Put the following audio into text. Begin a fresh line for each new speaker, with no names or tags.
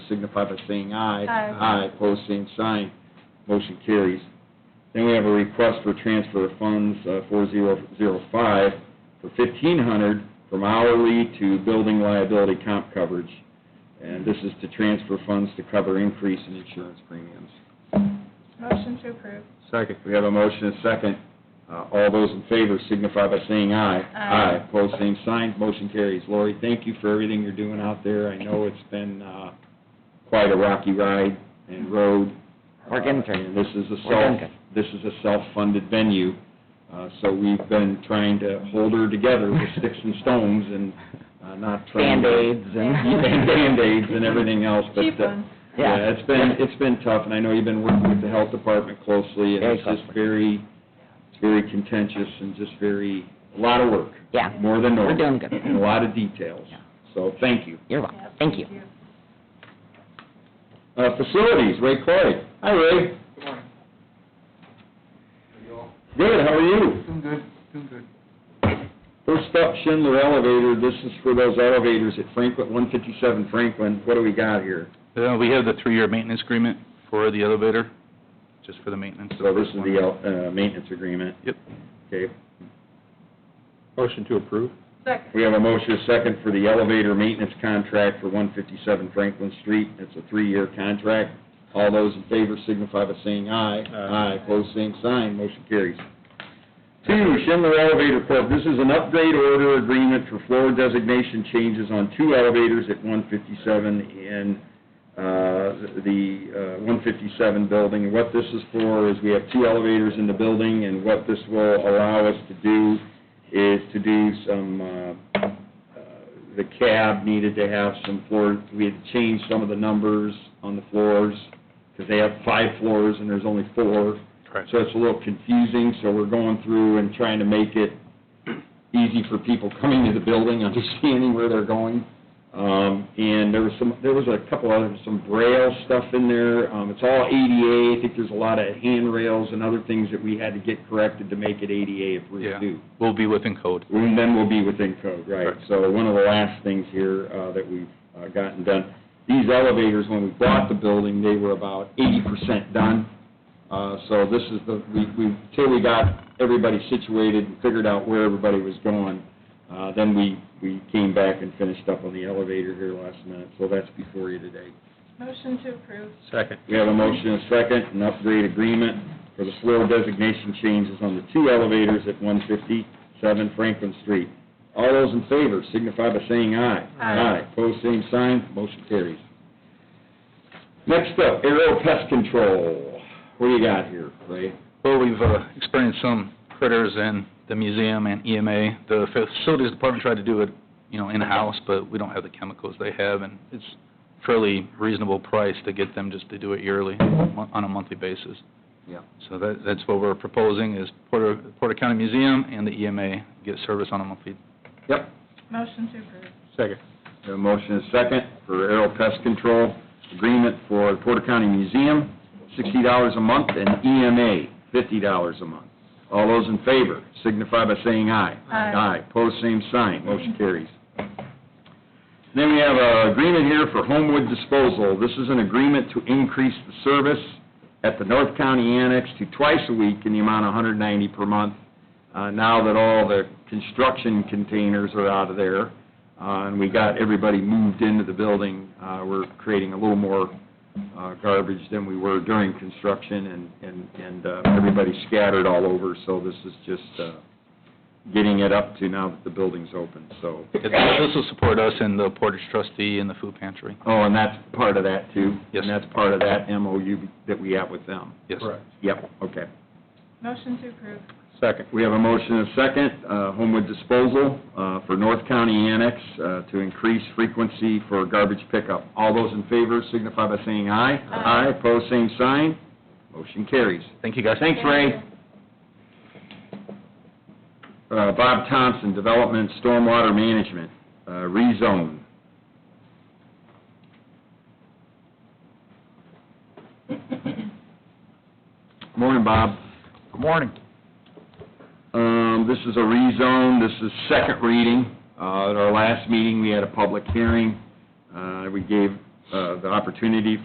signify by saying aye.
Aye.
Aye, pose same sign, motion carries. Then we have a request for transfer of funds, uh, four zero zero five, for fifteen hundred from hourly to building liability comp coverage. And this is to transfer funds to cover increase in insurance premiums.
Motion to approve.
Second. We have a motion and a second. Uh, All those in favor signify by saying aye.
Aye.
Aye, pose same sign, motion carries. Lori, thank you for everything you're doing out there. I know it's been uh, quite a rocky ride and road.
We're getting through.
And This is a
We're getting
self, this is a self-funded venue, uh, so we've been trying to hold her together with sticks and stones and uh, not trying to...
Band-Aids
And
and...
Band-Aids and everything else, but...
Cheap
uh,
ones.
Yeah.
Yeah, it's been, it's been tough, and I know you've been working with the health department closely, and
Very
it's just
closely.
very, it's very contentious and just very, a lot of work.
Yeah.
More than normal.
We're doing good.
And a lot of details,
Yeah.
so thank you.
You're welcome. Thank you.
Uh, facilities, Ray Clay. Hi, Ray.
Good morning. Are you all?
Good, how are you?
Doing good, doing good.
First up, Schindler Elevator, this is for those elevators at Franklin, one fifty-seven Franklin, what do we got here?
Uh, We have the three-year maintenance agreement for the elevator, just for the maintenance.
So this is the, el- uh, maintenance agreement,
Yep.
okay?
Motion to approve.
Second.
We have a motion, a second, for the elevator maintenance contract for 157 Franklin Street. It's a three-year contract. All those in favor signify by saying aye.
Aye.
Pose same sign, motion carries. Two, Schindler Elevator Corp., this is an upgrade order agreement for floor designation changes on two elevators at 157 in uh, the uh, 157 building. What this is for is we have two elevators in the building, and what this will allow us to do is to do some, uh, uh, the cab needed to have some floor, we had to change some of the numbers on the floors, because they have five floors and there's only four.
Correct.
So it's a little confusing, so we're going through and trying to make it easy for people coming to the building, understanding where they're going. Um, and there was some, there was a couple other, some braille stuff in there, um, it's all ADA, I think there's a lot of handrails and other things that we had to get corrected to make it ADA if we
Yeah.
do.
We'll be within code.
And then we'll be within code, right.
Correct.
So one of the last things here uh, that we've uh, gotten done, these elevators, when we bought the building, they were about eighty percent done. Uh, So this is the, we, we till we got everybody situated and figured out where everybody was going, uh, then we, we came back and finished up on the elevator here last minute, so that's before you today.
Motion to approve.
Second.
We have a motion and a second, an upgrade agreement for the floor designation changes on the two elevators at 157 Franklin Street. All those in favor signify by saying aye.
Aye.
Pose same sign, motion carries. Next up, aerial pest control. What do you got here, Ray?
Well, we've uh, experienced some critters in the museum and EMA. The facilities department tried to do it, you know, in-house, but we don't have the chemicals they have, and it's fairly reasonable price to get them just to do it yearly, mon- on a monthly basis.
Yeah.
So that, that's what we're proposing, is Porter, Porter County Museum and the EMA get service on a monthly
Yep.
Motion to approve.
Second. A motion and a second for aerial pest control agreement for Porter County Museum, sixty dollars a month, and EMA, fifty dollars a month. All those in favor signify by saying aye.
Aye.
Aye, pose same sign, motion carries. Then we have an agreement here for Homewood Disposal. This is an agreement to increase the service at the North County Annex to twice a week in the amount of $190 per month, uh, now that all the construction containers are out of there, uh, and we got everybody moved into the building, uh, we're creating a little more uh, garbage than we were during construction, and- and and uh, everybody's scattered all over, so this is just uh, getting it up to now that the building's open, so.
This will support us and the Portage trustee and the food pantry.
Oh, and that's part of that, too?
Yes.
And that's part of that MOU that we have with them?
Yes.
Yep, okay.
Motion to approve.
Second. We have a motion and a second, uh, Homewood Disposal uh, for North County Annex uh, to increase frequency for garbage pickup. All those in favor signify by saying aye.
Aye.
Aye, pose same sign, motion carries.
Thank you, guys.
Thanks, Ray. Uh, Bob Thompson, Development Stormwater Management, uh, rezone. Morning, Bob.
Good morning.
Um, This is a rezone, this is second reading. Uh, At our last meeting, we had a public hearing. Uh, We gave uh, the opportunity